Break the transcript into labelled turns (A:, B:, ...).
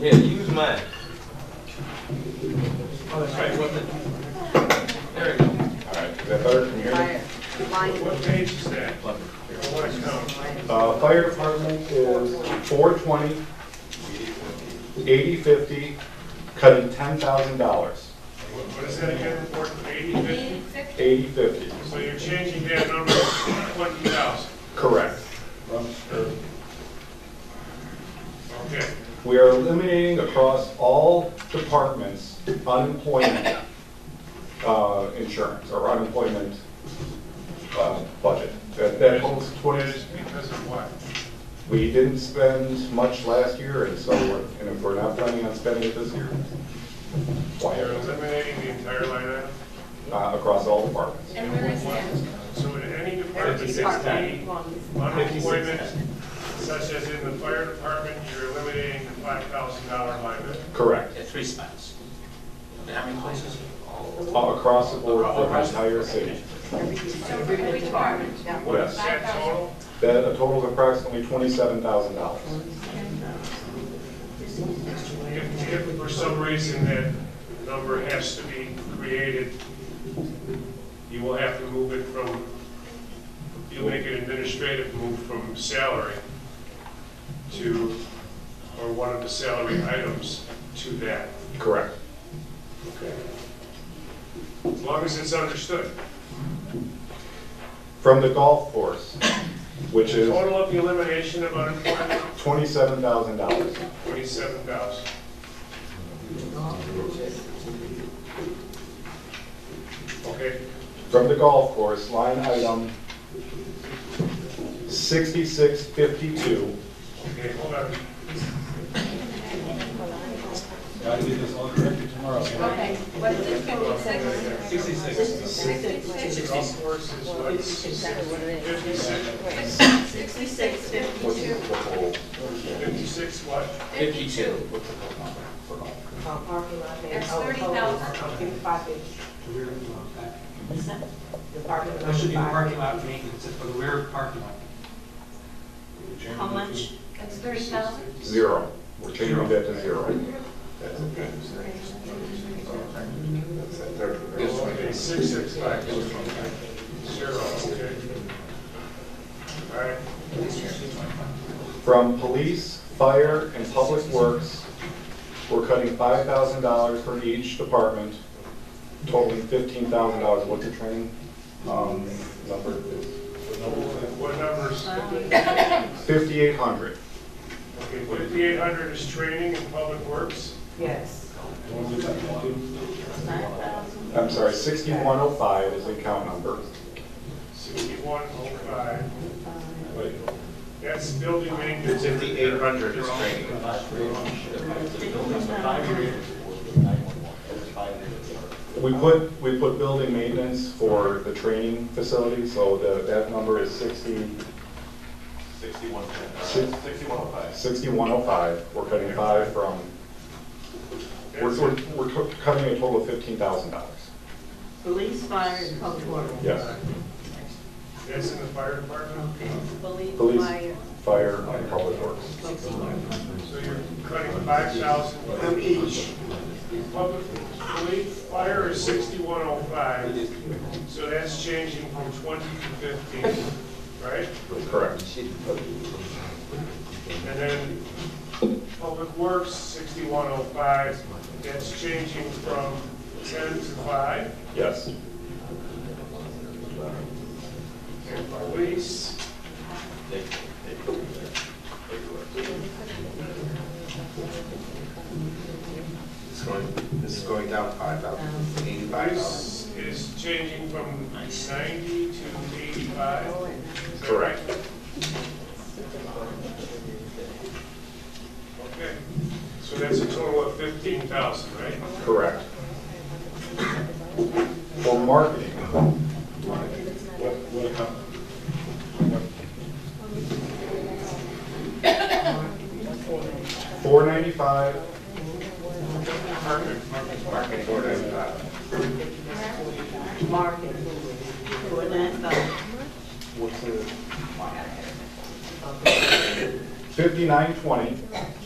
A: Yeah, use mine. Oh, that's right, what's it? There we go.
B: All right, is that better from your end?
C: What page is that? I want to count.
B: Uh, fire department is 420, 8050, cutting $10,000,
C: What what is that again, report, eighty fifty?
B: 8050.
C: So you're changing that number to twenty thousand,
B: Correct.
C: okay.
B: We are eliminating across all departments unemployment uh, insurance or unemployment uh, budget. That that totals
C: That
B: 20,
C: is because of what?
B: we didn't spend much last year, and so, we're- and if we're not planning on spending it this year, why
C: You're
B: are we
C: eliminating the entire line item?
B: not across all departments?
D: And where is that?
C: So in any department, it's unemployment, such as in the fire department, you're eliminating the five thousand dollar line item.
B: Correct.
E: Yeah, three spots. And how many places?
B: Uh, Across the board for the entire city.
D: So for every department?
C: What is
B: Yes.
C: that total?
B: That a total of approximately twenty-seven thousand dollars.
C: If, if for some reason that number has to be created, you will have to move it from, you'll make an administrative move from salary to, or one of the salary items to that.
B: Correct.
C: Okay. As long as it's understood.
B: From the golf course, which is
C: Total of the elimination of unemployment,
B: twenty-seven thousand dollars.
C: twenty-seven thousand. Okay,
B: From the golf course, line item sixty-six fifty-two.
C: okay, hold on.
F: Gotta get this all corrected tomorrow.
D: Okay, what is it, fifty-six? Sixty-six.
C: Golf course is what, fifty-six,
D: Sixty-six, fifty-two.
C: fifty-six what?
D: Fifty-two. That's thirty thousand.
G: That should be parking lot maintenance, it's for the rear parking lot.
H: How much?
D: That's thirty thousand?
B: Zero. We're changing that to zero.
C: Okay, six, six, five, zero, okay. All right,
B: From police, fire, and public works, we're cutting five thousand dollars for each department, totaling fifteen thousand dollars. What's the training, um, number?
C: what numbers?
B: Fifty-eight hundred.
C: Okay, fifty-eight hundred is training in public works,
H: Yes.
B: I'm sorry, sixty-one oh five is the account number.
C: sixty-one oh five. That's building maintenance. Fifty-eight hundred is training.
B: We put, we put building maintenance for the training facility, so the, that number is sixty. Sixty-one. Sixty-one oh five. Sixty-one oh five, we're cutting five from, we're, we're, we're cu- cutting a total of fifteen thousand dollars.
H: Police, fire, and
D: Oh,
H: public works.
B: Yes,
C: That's in the fire department,
B: police,
D: uh,
B: fire, and public works.
C: so you're cutting five thousand. From each. Public, police, fire is sixty-one oh five, so that's changing from twenty to fifteen, right?
B: Correct.
C: And then public works, sixty-one oh five, that's changing from ten to five.
B: Yes,
C: Police.
I: This is going down five thousand, eighty-five thousand.
C: This is changing from 90 to 85. Is that
B: Correct.
C: right? Okay, so that's a total of 15,000, right?
B: correct. For marketing, four ninety-five,
C: Perfect.
I: Market order, uh,
H: Market, for that,
B: fifty-nine twenty,